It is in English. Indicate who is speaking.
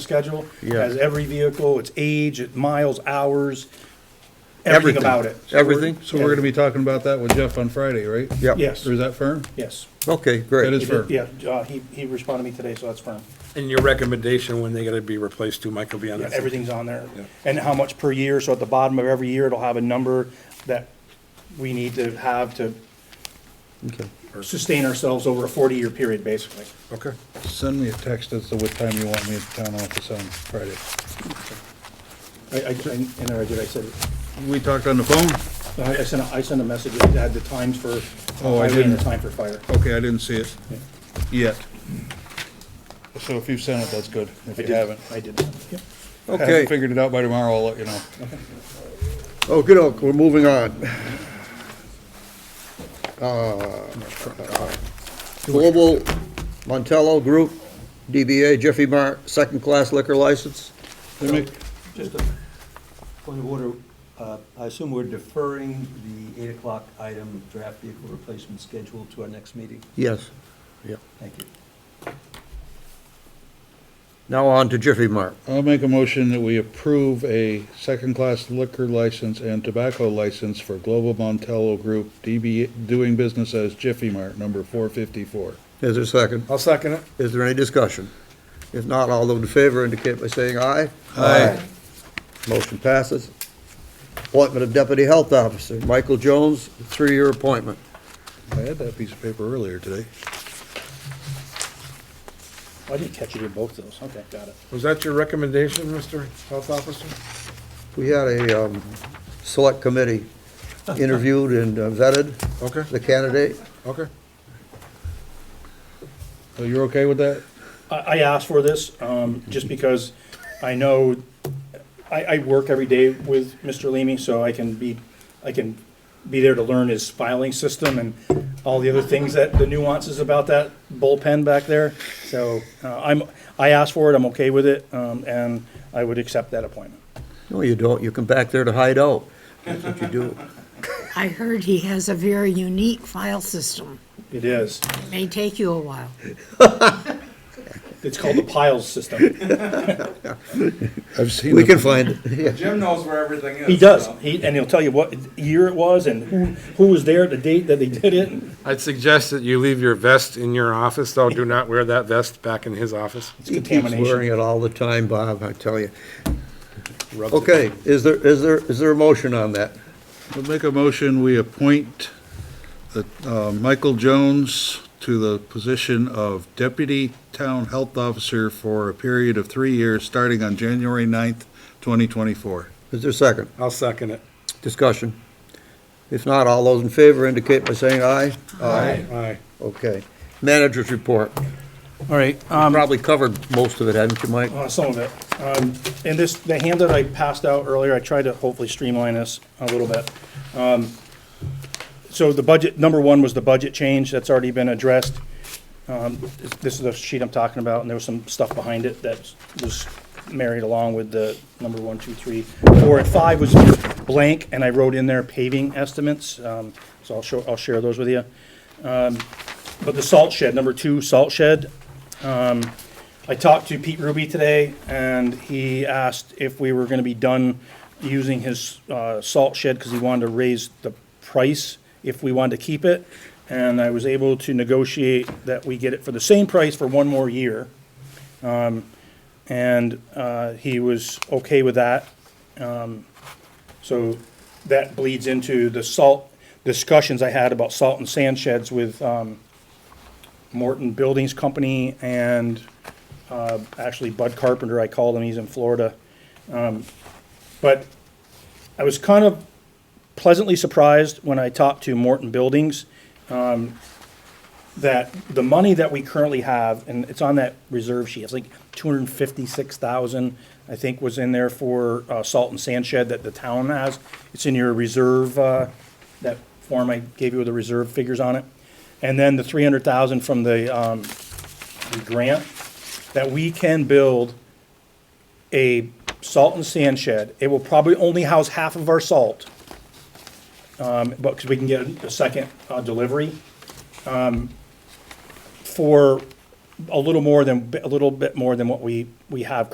Speaker 1: schedule.
Speaker 2: Yeah.
Speaker 1: Has every vehicle, its age, its miles, hours, everything
Speaker 2: Everything.
Speaker 1: about it. So we're-
Speaker 2: Everything?
Speaker 3: So we're gonna be talking about that with Jeff on Friday, right?
Speaker 2: Yep.
Speaker 1: Yes,
Speaker 3: Or is that firm?
Speaker 1: yes.
Speaker 2: Okay,
Speaker 3: That
Speaker 2: great.
Speaker 3: is- firm.
Speaker 1: Yeah, uh, he, he responded to me today, so that's firm.
Speaker 4: And your recommendation when they gotta be replaced too, Mike, will be on
Speaker 1: Yeah,
Speaker 4: that.
Speaker 1: Everything's on there.
Speaker 4: Yeah.
Speaker 1: And how much per year, so at the bottom of every year, it'll have a number that we need to have to
Speaker 2: Okay.
Speaker 1: sustain ourselves over a forty-year period, basically.
Speaker 4: Okay.
Speaker 3: Send me a text as to what time you want me at the town office on Friday.
Speaker 1: I, I, I- and I did, I said,
Speaker 3: We talked on the phone?
Speaker 1: I I sent, a- I sent a message that had the times for
Speaker 3: Oh, I
Speaker 1: highway and the
Speaker 3: didn't.
Speaker 1: time for fire.
Speaker 3: Okay, I didn't see it yet. So if you've sent it, that's good. If
Speaker 1: I
Speaker 3: you
Speaker 1: did-
Speaker 3: haven't.
Speaker 1: I did. Yep.
Speaker 3: Haven't
Speaker 2: Okay,
Speaker 3: figured it out by tomorrow, I'll let you know. Oh,
Speaker 2: okey doke, we're moving on. Uh, Global Montello Group, DBA Jiffy Mart, second-class liquor license.
Speaker 3: They make-
Speaker 5: Just a point of order, uh, I assume we're deferring the eight o'clock item, draft vehicle replacement schedule to our next meeting?
Speaker 2: Yes. Yeah.
Speaker 5: Thank you.
Speaker 2: Now on to Jiffy Mart.
Speaker 3: I'll make a motion that we approve a second-class liquor license and tobacco license for Global Montello Group, DB, doing business as Jiffy Mart, number four fifty-four.
Speaker 2: Is there a second?
Speaker 4: I'll second it.
Speaker 2: Is there any discussion? If not, all those in favor indicate by saying aye.
Speaker 3: Aye.
Speaker 2: Motion passes. Appointment of Deputy Health Officer, Michael Jones, three-year appointment.
Speaker 3: I had that piece of paper earlier today.
Speaker 1: I didn't catch it in both of those. Okay, got it.
Speaker 4: Was that your recommendation, Mr. Health Officer?
Speaker 2: We had a um, select committee interviewed and uh, vetted
Speaker 4: Okay,
Speaker 2: the candidate.
Speaker 4: okay.
Speaker 3: So you're okay with that?
Speaker 1: I, I asked for this, um, just because I know, I, I work every day with Mr. Leamy, so I can be, I can be there to learn his filing system and all the other things that, the nuances about that bullpen back there. So, uh, I'm, I asked for it, I'm okay with it, um, and I would accept that appointment.
Speaker 2: No, you don't. You come back there to hide out. That's what you do.
Speaker 6: I heard he has a very unique file system.
Speaker 1: It is.
Speaker 6: It may take you a while.
Speaker 1: It's called the piles system.
Speaker 3: I've seen.
Speaker 2: We
Speaker 3: the-
Speaker 2: can find it.
Speaker 7: Jim knows where everything is.
Speaker 1: He does,
Speaker 7: so.
Speaker 1: he, and he'll tell you what year it was and who, who was there, the date that they did it.
Speaker 4: I'd suggest that you leave your vest in your office, though. Do not wear that vest back in his office.
Speaker 1: It's
Speaker 2: He keeps wearing
Speaker 1: contamination.
Speaker 2: it all the time, Bob, I tell you.
Speaker 4: Rubs it.
Speaker 2: Okay, is there, is there, is there a motion on that?
Speaker 3: I'll make a motion, we appoint the, uh, Michael Jones to the position of Deputy Town Health Officer for a period of three years, starting on January 9th, twenty twenty-four.
Speaker 2: Is there a second?
Speaker 4: I'll second it.
Speaker 2: Discussion. If not, all those in favor indicate by saying aye.
Speaker 4: Aye. Aye.
Speaker 2: Okay. Manager's report.
Speaker 1: All right,
Speaker 2: Probably covered most of it, haven't you, Mike?
Speaker 1: Uh, some of it. Um, and this, the handout I passed out earlier, I tried to hopefully streamline this a little bit. Um, So the budget, number one was the budget change, that's already been addressed. Um, this- this is the sheet I'm talking about, and there was some stuff behind it that was married along with the number one, two, three, four, and five was blank, and I wrote in there paving estimates, um, so I'll show, I'll share those with you. Um, but the salt shed, number two, salt shed, I talked to Pete Ruby today, and he asked if we were gonna be done using his, uh, salt shed, cause he wanted to raise the price if we wanted to keep it. And I was able to negotiate that we get it for the same price for one more year. Um, and, uh, he was okay with that. Um, so that bleeds into the salt discussions I had about salt and sand sheds with, um, Morton Buildings Company and uh, actually Bud Carpenter, I called him, he's in Florida. Um, But I was kind of pleasantly surprised when I talked to Morton Buildings um, that the money that we currently have, and it's on that reserve sheet, it's like two hundred and fifty-six thousand, I think was in there for uh, salt and sand shed that the town has. It's in your reserve, uh, that form I gave you with the reserve figures on it. And then the three hundred thousand from the um, the grant that we can build a salt and sand shed. It will probably only house half of our salt, um, but, because we can get a second, uh, delivery, um, for a little more than, a little bit more than what we, we have